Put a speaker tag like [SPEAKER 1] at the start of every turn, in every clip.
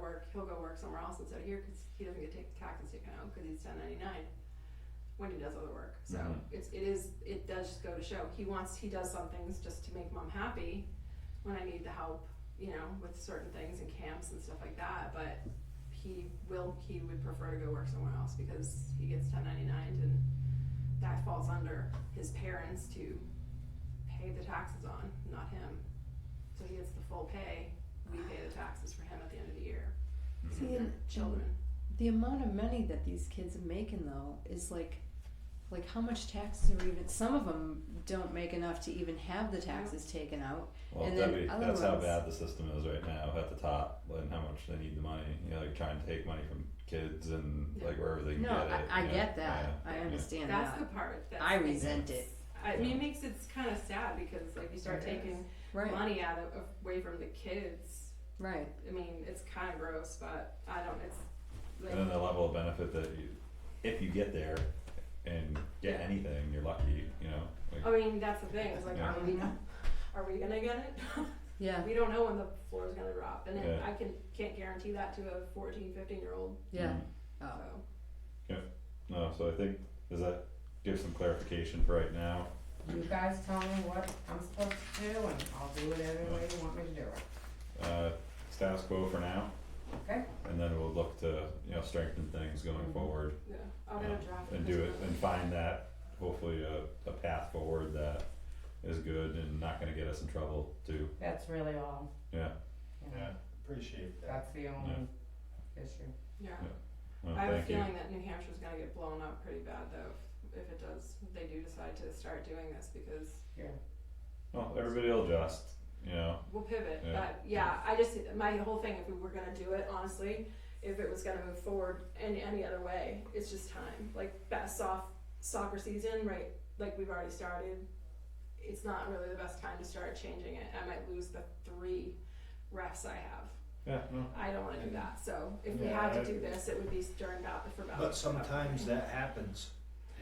[SPEAKER 1] work, he'll go work somewhere else instead of here because he doesn't get ta- taxes taken out because he's ten ninety nine when he does other work. So
[SPEAKER 2] Mhm.
[SPEAKER 1] it's it is it does just go to show he wants he does some things just to make mom happy when I need the help, you know, with certain things and camps and stuff like that. But he will he would prefer to go work somewhere else because he gets ten ninety nine and that falls under his parents to pay the taxes on, not him. So he gets the full pay. We pay the taxes for him at the end of the year.
[SPEAKER 2] Mhm.
[SPEAKER 3] See, and
[SPEAKER 1] Children.
[SPEAKER 3] the amount of money that these kids are making though is like, like how much taxes are even? Some of them don't make enough to even have the taxes taken out.
[SPEAKER 2] Well,
[SPEAKER 3] And then
[SPEAKER 2] Debbie,
[SPEAKER 3] other
[SPEAKER 2] that's how
[SPEAKER 3] ones-
[SPEAKER 2] bad the system is right now at the top, and how much they need the money. You know, like trying to take money from kids and like wherever they can
[SPEAKER 3] No,
[SPEAKER 2] get it.
[SPEAKER 3] I, I
[SPEAKER 2] you know?
[SPEAKER 3] get that.
[SPEAKER 2] Yeah,
[SPEAKER 3] I
[SPEAKER 2] yeah.
[SPEAKER 3] understand
[SPEAKER 1] That's the
[SPEAKER 3] that.
[SPEAKER 1] part that
[SPEAKER 3] uh, I resent it.
[SPEAKER 1] I mean, it makes it kind of sad because like you start
[SPEAKER 3] It
[SPEAKER 1] taking
[SPEAKER 3] Right.
[SPEAKER 1] money out of away from the kids.
[SPEAKER 3] Right.
[SPEAKER 1] I mean, it's kind of gross, but I don't. It's like
[SPEAKER 2] And then the level of benefit that you, if you get there, and get anything, you're lucky. You know, like,
[SPEAKER 3] Oh,
[SPEAKER 1] I mean, that's the thing. It's like,
[SPEAKER 2] Yeah.
[SPEAKER 1] are we, are we gonna get it?
[SPEAKER 3] Yeah.
[SPEAKER 1] we don't know when the floor is gonna drop, and it,
[SPEAKER 2] Yeah.
[SPEAKER 1] I can can't guarantee that to a 14, 15 year old.
[SPEAKER 3] Yeah.
[SPEAKER 2] mm.
[SPEAKER 3] Oh.
[SPEAKER 1] So
[SPEAKER 2] No, so I think does that give some clarification for right now?
[SPEAKER 4] You guys tell me what I'm supposed to do and I'll do it every way you want me to do it.
[SPEAKER 2] Uh, status quo for now.
[SPEAKER 4] Okay.
[SPEAKER 2] And then we'll look to you know strengthen things going
[SPEAKER 3] Mm-hmm.
[SPEAKER 4] Mhm.
[SPEAKER 2] forward.
[SPEAKER 1] yeah, I'm gonna
[SPEAKER 2] Yeah,
[SPEAKER 1] draft
[SPEAKER 2] and
[SPEAKER 1] this
[SPEAKER 2] do it
[SPEAKER 1] one.
[SPEAKER 2] and find that hopefully a, a path forward that is good and not gonna get us in trouble too.
[SPEAKER 4] That's really all.
[SPEAKER 2] Yeah.
[SPEAKER 4] You know,
[SPEAKER 5] Yeah, appreciate that.
[SPEAKER 4] that's the only issue.
[SPEAKER 1] Yeah,
[SPEAKER 2] Well,
[SPEAKER 1] I have a
[SPEAKER 2] thank you.
[SPEAKER 1] feeling that New Hampshire's gonna get blown up pretty bad though. if- If it does, if they do decide to start doing this because
[SPEAKER 2] Well, everybody'll adjust, you know,
[SPEAKER 1] we'll pivot.
[SPEAKER 2] Yeah.
[SPEAKER 1] But yeah, I just my whole thing if we were gonna do it honestly, if it was gonna move forward in any other way, it's just time. Like best off soccer season, right? Like we've already started. It's not really the best time to start changing it. I might lose the three refs I have.
[SPEAKER 2] yeah, no.
[SPEAKER 1] I don't wanna do that, so if we
[SPEAKER 5] Yeah,
[SPEAKER 1] had to
[SPEAKER 5] I-
[SPEAKER 1] do this, it would be during about, for about.
[SPEAKER 5] But sometimes that happens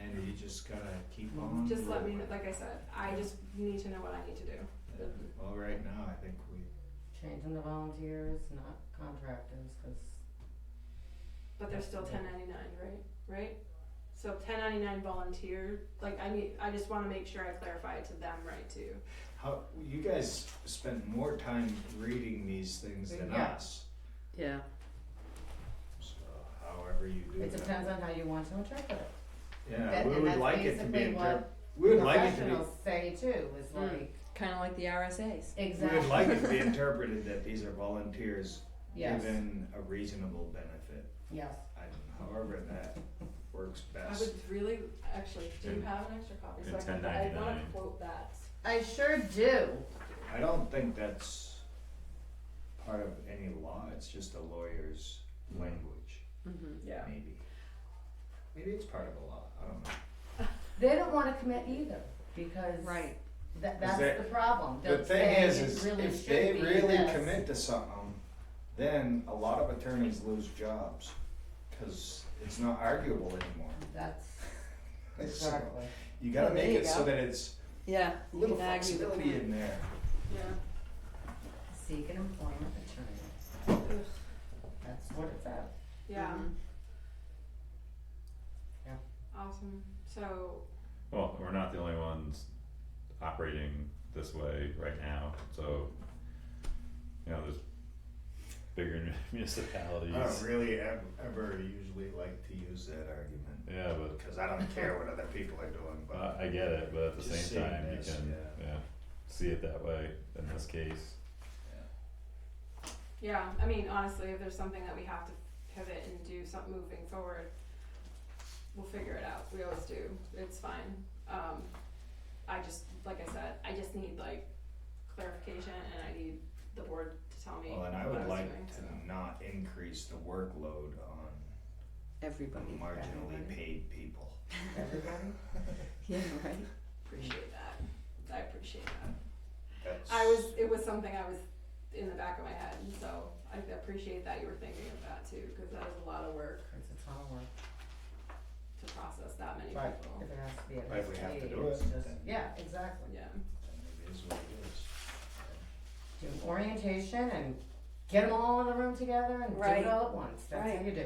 [SPEAKER 5] and you just gotta keep on.
[SPEAKER 4] Mm-hmm.
[SPEAKER 1] Just let me,
[SPEAKER 5] rolling.
[SPEAKER 1] know like I said, I just need to know what I need to do.
[SPEAKER 5] Yeah. Well, right now, I think we,
[SPEAKER 4] Changing the volunteers, not contractors, cause
[SPEAKER 1] But they're still ten ninety nine, right? Right? So ten ninety nine volunteer, like I need, I just wanna make sure I clarify it to them, right, too.
[SPEAKER 5] how, you guys spend more time reading these things than
[SPEAKER 4] Yeah.
[SPEAKER 5] us.
[SPEAKER 3] Yeah.
[SPEAKER 5] So however you do
[SPEAKER 4] it
[SPEAKER 5] that.
[SPEAKER 4] depends on how you want to interpret it.
[SPEAKER 5] Yeah,
[SPEAKER 4] That-
[SPEAKER 5] we
[SPEAKER 4] and
[SPEAKER 5] would
[SPEAKER 4] that's
[SPEAKER 5] like it to be,
[SPEAKER 4] basically
[SPEAKER 5] interp-
[SPEAKER 4] what
[SPEAKER 5] we would like it to be,
[SPEAKER 4] Professionals say too, is
[SPEAKER 3] Mm.
[SPEAKER 4] like,
[SPEAKER 3] Kind of like the RSAs.
[SPEAKER 5] we
[SPEAKER 4] exactly.
[SPEAKER 5] would like it to be interpreted that these are volunteers
[SPEAKER 4] Yes,
[SPEAKER 5] given a reasonable benefit.
[SPEAKER 4] yes.
[SPEAKER 5] I don't know, however that works
[SPEAKER 1] I
[SPEAKER 5] best.
[SPEAKER 1] would really, actually, do you have an extra copy? So I
[SPEAKER 2] And
[SPEAKER 1] can, I wanna
[SPEAKER 2] 10.99.
[SPEAKER 1] quote that.
[SPEAKER 4] I sure do.
[SPEAKER 5] I don't think that's part of any law, it's just a lawyer's language,
[SPEAKER 3] Mm-hmm.
[SPEAKER 1] Yeah.
[SPEAKER 5] maybe. Maybe it's part of the law, I don't know.
[SPEAKER 4] They don't wanna commit either, because
[SPEAKER 3] Right.
[SPEAKER 4] that,
[SPEAKER 5] Is
[SPEAKER 4] that's
[SPEAKER 5] that-
[SPEAKER 4] the problem.
[SPEAKER 5] The
[SPEAKER 4] They'll
[SPEAKER 5] thing
[SPEAKER 4] say
[SPEAKER 5] is,
[SPEAKER 4] it
[SPEAKER 5] is
[SPEAKER 4] really
[SPEAKER 5] if
[SPEAKER 4] should
[SPEAKER 5] they
[SPEAKER 4] be
[SPEAKER 5] really
[SPEAKER 4] this.
[SPEAKER 5] commit to something, then a lot of attorneys lose jobs, cause it's not arguable anymore.
[SPEAKER 4] That's,
[SPEAKER 5] So,
[SPEAKER 4] exactly.
[SPEAKER 5] You gotta
[SPEAKER 3] Well, there
[SPEAKER 5] make
[SPEAKER 3] you
[SPEAKER 5] it so
[SPEAKER 3] go.
[SPEAKER 5] that it's
[SPEAKER 3] Yeah.
[SPEAKER 5] a
[SPEAKER 3] you
[SPEAKER 5] little
[SPEAKER 3] can argue the
[SPEAKER 5] flexibility
[SPEAKER 3] point.
[SPEAKER 5] in there.
[SPEAKER 1] Yeah.
[SPEAKER 4] Seek an employment attorney. That's what it's at.
[SPEAKER 1] Yeah,
[SPEAKER 3] Mhm.
[SPEAKER 1] awesome. So,
[SPEAKER 2] Well, we're not the only ones operating this way right now, so, you know, there's bigger municipalities.
[SPEAKER 5] I don't Oh, really ev- ever usually like to use that argument,
[SPEAKER 2] Yeah, but, uh,
[SPEAKER 5] cause I don't care what other people are doing, but.
[SPEAKER 2] I I get it, but at the
[SPEAKER 5] Just
[SPEAKER 2] same
[SPEAKER 5] seeing
[SPEAKER 2] time, you
[SPEAKER 5] this,
[SPEAKER 2] can,
[SPEAKER 5] yeah.
[SPEAKER 2] yeah, see it that way in this case.
[SPEAKER 1] yeah, I mean, honestly, if there's something that we have to pivot and do something moving forward, we'll figure it out. We always do. It's fine. Um, I just, like I said, I just need like clarification and I need the board to tell me
[SPEAKER 5] Well, and I
[SPEAKER 1] what
[SPEAKER 5] would
[SPEAKER 1] was
[SPEAKER 5] like
[SPEAKER 1] doing, so.
[SPEAKER 5] to not increase the workload on
[SPEAKER 3] Everybody.
[SPEAKER 5] marginally paid people.
[SPEAKER 4] Everybody?
[SPEAKER 3] Yeah. Right.
[SPEAKER 1] Appreciate that. I appreciate that.
[SPEAKER 5] That's.
[SPEAKER 1] I was, it was something I was in the back of my head, and so I appreciate that you were thinking of that too, because that is a lot of work
[SPEAKER 4] Cause it's all work.
[SPEAKER 1] to process that many people.
[SPEAKER 4] Right, if it has to be at
[SPEAKER 5] But if
[SPEAKER 4] this
[SPEAKER 5] we have to
[SPEAKER 4] stage,
[SPEAKER 5] do
[SPEAKER 4] it's
[SPEAKER 5] it,
[SPEAKER 4] just,
[SPEAKER 5] then-
[SPEAKER 4] yeah, exactly.
[SPEAKER 1] Yeah.
[SPEAKER 5] It is what it is.
[SPEAKER 4] Do orientation and Get them all in the room together and do
[SPEAKER 6] Right.
[SPEAKER 4] it all at once, that's how
[SPEAKER 6] Right.
[SPEAKER 4] you do it.